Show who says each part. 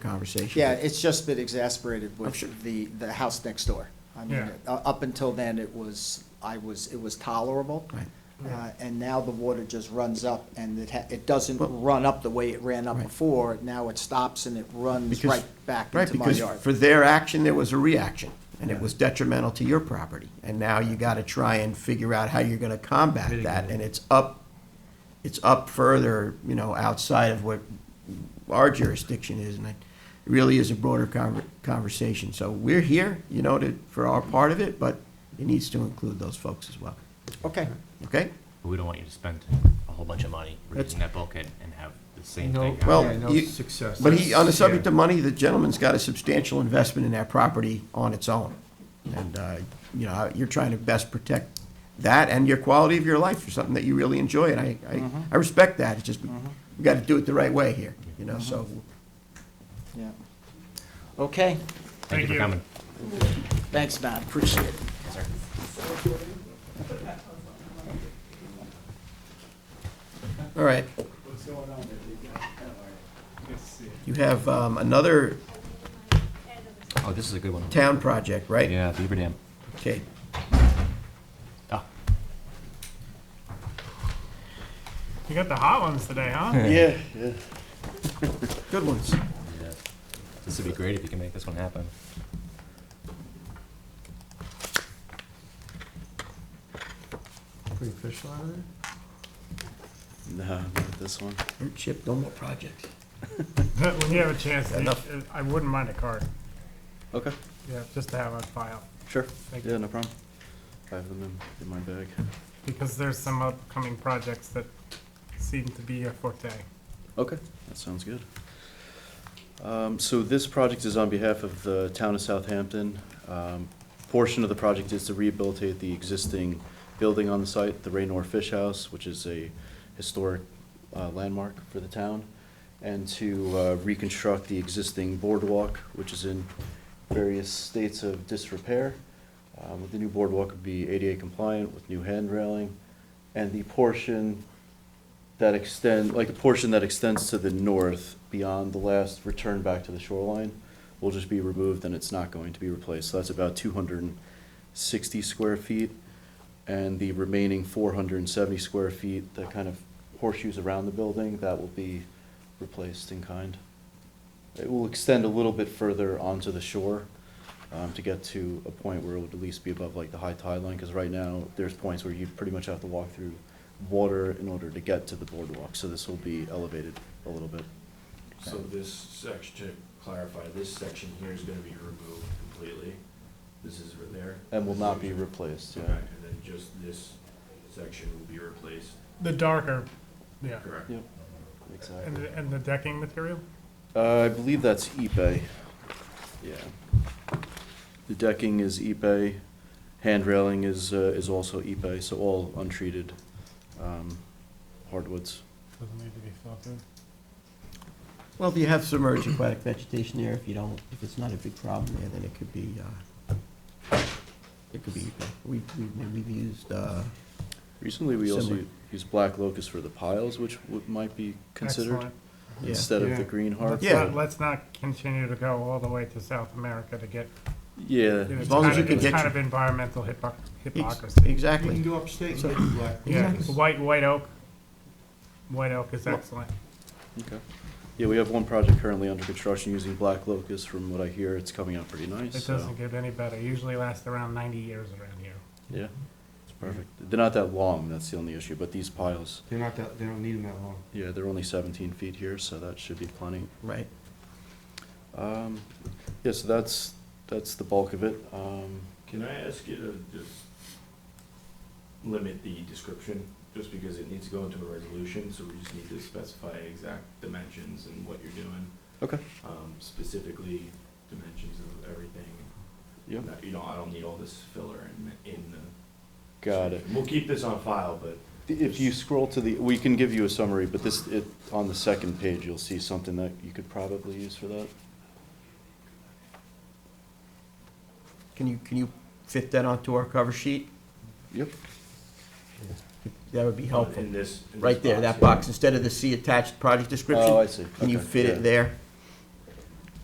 Speaker 1: conversation.
Speaker 2: Yeah, it's just been exasperated
Speaker 1: I'm sure.
Speaker 2: with the, the house next door. I mean,
Speaker 3: Yeah.
Speaker 2: u- up until then, it was, I was, it was tolerable.
Speaker 1: Right.
Speaker 2: Uh, And now the water just runs up and it, ha- it doesn't
Speaker 1: Well-
Speaker 2: run up the way it ran up
Speaker 1: Right.
Speaker 2: before. Now it stops and it runs
Speaker 1: Because-
Speaker 2: right back
Speaker 1: Right,
Speaker 2: into my
Speaker 1: because
Speaker 2: yard.
Speaker 1: for their action, there was a reaction, and it was detrimental to your property. And now you gotta try and figure out how you're gonna combat that, and it's up, it's up further, you know, outside of what our jurisdiction is, and it really is a broader conver- conversation. So we're here, you know, to, for our part of it, but it needs to include those folks as well,
Speaker 2: Okay,
Speaker 1: okay?
Speaker 4: But we don't want you to spend a whole bunch of money
Speaker 1: That's-
Speaker 4: reducing that bulkhead and have the same
Speaker 3: No,
Speaker 4: thing.
Speaker 1: Well,
Speaker 3: yeah, no
Speaker 1: you-
Speaker 3: success.
Speaker 1: But he, on the
Speaker 3: That's-
Speaker 1: subject
Speaker 3: yeah.
Speaker 1: of money, the gentleman's got a substantial investment in that property on its own. And, uh, you know, you're trying to best protect that and your quality of your life for something that you really enjoy, and I, I,
Speaker 3: Mm-hmm.
Speaker 1: I respect that, it's just, we we gotta do it the right way here, you know, so.
Speaker 3: Mm-hmm.
Speaker 2: yeah. Okay,
Speaker 4: Thank you for coming.
Speaker 2: thanks, Matt, appreciate it.
Speaker 1: All right. You have, um, another
Speaker 4: Oh, this is a good one.
Speaker 1: town project, right?
Speaker 4: Yeah, Beaver Dam.
Speaker 1: Okay,
Speaker 4: Ah,
Speaker 3: You got the hot ones today, huh?
Speaker 2: Yeah.
Speaker 1: good ones.
Speaker 4: yeah. This would be great if you can make this one happen.
Speaker 3: Pretty official out of there?
Speaker 5: No, not this one.
Speaker 1: Don't Chip, no more projects.
Speaker 3: When you have a chance, you-
Speaker 1: Enough.
Speaker 3: uh, I wouldn't mind a card,
Speaker 5: Okay,
Speaker 3: yeah, just to have on file,
Speaker 5: sure.
Speaker 3: Thank
Speaker 5: Yeah, no problem. I have them in, in my bag.
Speaker 3: because there's some upcoming projects that seem to be a forte.
Speaker 5: Okay, that sounds good. Um, so this project is on behalf of the town of Southampton. Um, portion of the project is to rehabilitate the existing building on the site, the Raynor Fish House, which is a historic, uh, landmark for the town, and to, uh, reconstruct the existing boardwalk, which is in various states of disrepair. Uh, with the new boardwalk would be ADA compliant with new hand railing, and the portion that extend, like the portion that extends to the north beyond the last return back to the shoreline will just be removed and it's not going to be replaced. So that's about two hundred and sixty square feet. And the remaining four hundred and seventy square feet, that kind of horseshoes around the building, that will be replaced in kind. It will extend a little bit further onto the shore, um, to get to a point where it would at least be above like the high tide line, because right now, there's points where you pretty much have to walk through water in order to get to the boardwalk, so this will be elevated a little bit.
Speaker 6: So this section, to clarify, this section here is gonna be removed completely. This is right there.
Speaker 5: And will not be replaced,
Speaker 6: Okay,
Speaker 5: yeah.
Speaker 6: and then just this section will be replaced,
Speaker 3: The darker, yeah,
Speaker 6: correct?
Speaker 5: Yep,
Speaker 3: and,
Speaker 5: exactly.
Speaker 3: the- and the decking material?
Speaker 5: Uh, I believe that's Ipe. Yeah. The decking is Ipe, hand railing is, uh, is also Ipe, so all untreated, um, hardwoods.
Speaker 3: Doesn't need to be filtered.
Speaker 1: Well, if you have submerged aquatic vegetation there, if you don't, if it's not a big problem there, then it could be, uh, it could be, we, we, we've used, uh,
Speaker 5: Recently, we also
Speaker 1: Similar.
Speaker 5: used black locust for the piles, which would, might be considered
Speaker 3: Excellent.
Speaker 1: yeah.
Speaker 5: instead of
Speaker 3: Yeah.
Speaker 5: the green heart.
Speaker 3: Let's
Speaker 1: Yeah.
Speaker 3: not, let's not continue to go all the way to South America to get,
Speaker 5: Yeah.
Speaker 3: you know, it's
Speaker 1: long as
Speaker 3: kind
Speaker 1: you
Speaker 3: of,
Speaker 1: can
Speaker 3: it's
Speaker 1: get
Speaker 3: kind
Speaker 1: your-
Speaker 3: of environmental hypocr-
Speaker 1: Ex-
Speaker 3: hypocrisy.
Speaker 1: Exactly.
Speaker 7: go upstate and get black.
Speaker 3: Yeah,
Speaker 1: Exactly.
Speaker 3: white, white oak, white oak is excellent.
Speaker 5: Okay. Yeah, we have one project currently under construction using black locust. From what I hear, it's coming out pretty nice,
Speaker 3: It
Speaker 5: so,
Speaker 3: doesn't get any better, usually lasts around ninety years around here.
Speaker 5: yeah, it's perfect. They're not that long, that's the only issue, but these piles,
Speaker 7: They're not that, they don't need them that long.
Speaker 5: yeah, they're only seventeen feet here, so that should be plenty.
Speaker 1: Right.
Speaker 5: Um, yeah, so that's, that's the bulk of it. Um,
Speaker 6: Can I ask you to just limit the description, just because it needs to go into a resolution, so we just need to specify exact dimensions and what you're doing,
Speaker 5: okay,
Speaker 6: um, specifically dimensions of everything.
Speaker 5: Yep.
Speaker 6: Not- You know, I don't need all this filler in, in the.
Speaker 5: got it.
Speaker 6: We'll keep this on file, but
Speaker 5: If you scroll to the, we can give you a summary, but this, it, on the second page, you'll see something that you could probably use for that.
Speaker 1: Can you, can you fit that onto our cover sheet?
Speaker 5: Yep,
Speaker 1: That would be
Speaker 5: Oh,
Speaker 1: helpful.
Speaker 6: in this. in this
Speaker 1: Right there, that
Speaker 6: yeah.
Speaker 1: box, instead of the C attached project description.
Speaker 5: Oh, I see.
Speaker 1: Can you
Speaker 5: Okay,
Speaker 1: fit
Speaker 5: yeah.
Speaker 1: it there?